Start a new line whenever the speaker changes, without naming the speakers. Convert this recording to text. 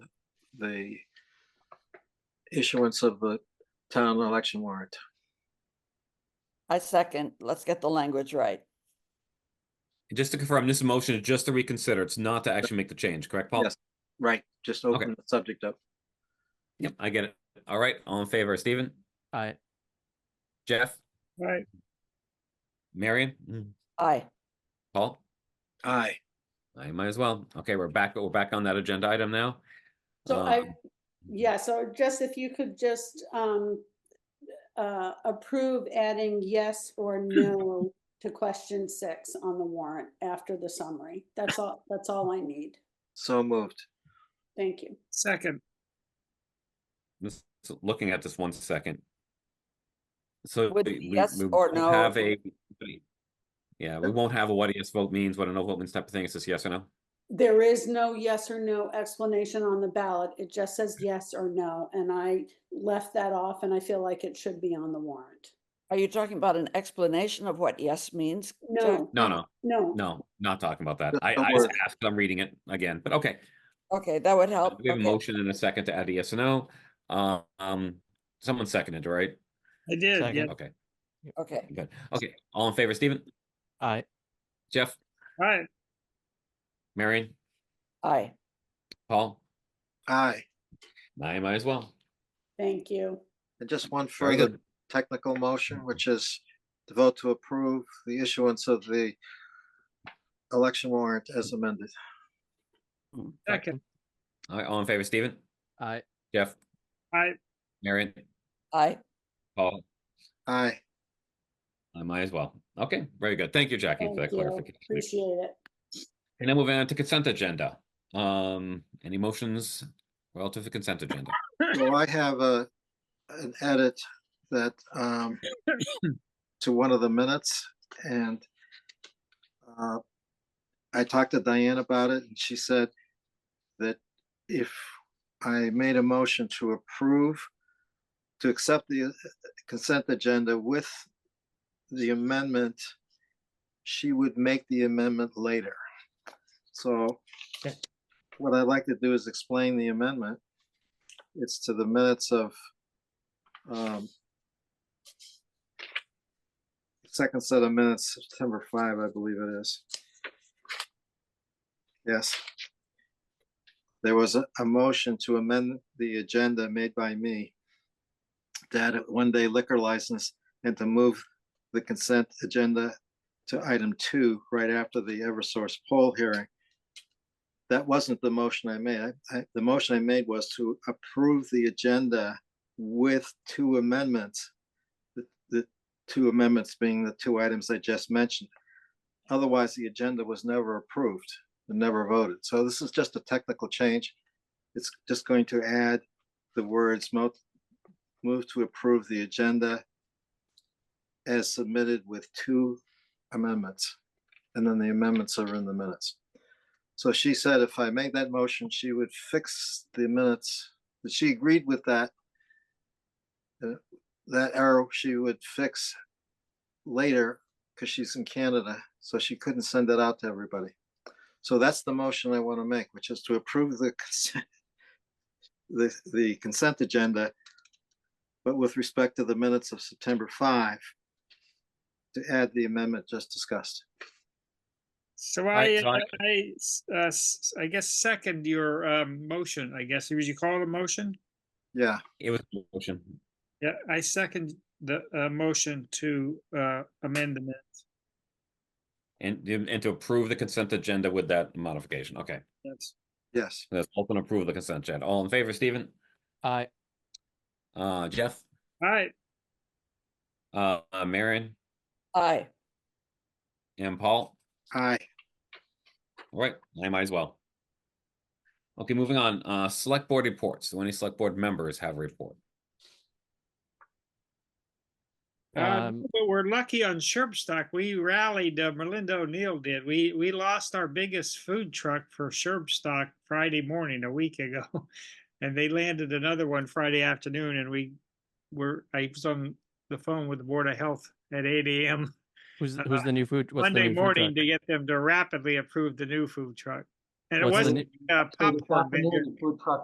the issuance of the town election warrant.
I second. Let's get the language right.
Just to confirm, this motion is just to reconsider. It's not to actually make the change, correct, Paul?
Yes. Right, just open the subject up.
Yep, I get it. All right, all in favor, Stephen,
Aye.
Jeff,
Right,
Marion,
Aye.
Paul?
Aye,
I might as well. Okay, we're back, we're back on that agenda item now.
So I,
Um,
yeah, so just if you could just um uh approve adding yes or no to question six on the warrant after the summary. That's all, that's all I need.
so moved.
Thank you.
second,
Just looking at this one second. So.
With
we- we-
yes
we
or
won't
no.
Have a. Yeah, we won't have a what a yes vote means, what a no vote means type of thing. It's just yes or no.
There is no yes or no explanation on the ballot. It just says yes or no, and I left that off and I feel like it should be on the warrant.
Are you talking about an explanation of what yes means? Jack?
No,
No, no,
no.
no, not talking about that.
No,
I,
don't
I just
worry.
asked, I'm reading it again, but okay.
Okay, that would help.
We have a
Oh, Okay.
motion and a second to add E a yes or no. Uh, Um, someone seconded, right?
I did,
Second.
yeah,
Okay,
Okay,
good. Okay, all in favor, Stephen,
Aye.
Jeff,
right,
Marion,
aye.
Paul?
Aye,
I might as well.
Thank you.
and just one
Very
further
good.
technical motion, which is to vote to approve the issuance of the election warrant as amended.
second,
All right, all in favor, Stephen,
Aye.
Jeff,
right,
Marion,
Aye.
Paul,
Aye,
I might as well. Okay, very good. Thank you, Jackie, for that
Thank you.
clarification.
Appreciate it.
And then moving on to consent agenda. Um, any motions relative to consent agenda?
so I have a, an edit that, um, to one of the minutes and uh, I talked to Diane about it and she said that if I made a motion to approve, to accept the uh, consent agenda with the amendment, she would make the amendment later. So
Okay.
what I'd like to do is explain the amendment. It's to the minutes of um, second set of minutes, September 5, I believe it is. Yes. There was a, a motion to amend the agenda made by me that a one-day liquor license and to move the consent agenda to item two right after the Eversource poll hearing. That wasn't the motion I made. I- I, the motion I made was to approve the agenda with two amendments. The, the two amendments being the two items I just mentioned. Otherwise, the agenda was never approved and never voted. So this is just a technical change. It's just going to add the words mo- move to approve the agenda as submitted with two amendments. And then the amendments are in the minutes. So she said if I make that motion, she would fix the minutes. But She agreed with that. uh, That arrow she would fix later because she's in Canada, so she couldn't send it out to everybody. So that's the motion I want to make, which is to approve the consent, the, the consent agenda, but with respect to the minutes of September 5, to add the amendment just discussed.
so
right,
I,
so I-
I, s- uh, s- I guess second your, um, motion, I guess, would you call it a motion?
Yeah,
It was a motion.
Yeah, I second the, uh, motion to, uh, amend the, minute.
And, and to approve the consent agenda with that modification. Okay,
That's-
yes,
let's open approve the consent agenda. All in favor, Stephen,
Aye.
uh, Jeff,
all right,
uh, uh, Marion
Aye.
and Paul?
aye.
All right, I might as well. Okay, moving on, uh, select board reports. Do any select board members have a report?
Um,
Um,
but we're lucky on Sherbstock. We rallied, uh, Melinda O'Neill did. We, we lost our biggest food truck for Sherbstock Friday morning a week ago. And they landed another one Friday afternoon and we were, I was on the phone with the Board of Health at eight AM
Who's
Uh,
who's the new food? what's the
Monday
new food
morning
truck?
to get them to rapidly approve the new food truck. And it
What's the
wasn't
new-
uh,
So this
popcorn vendor.
afternoon, the Food truck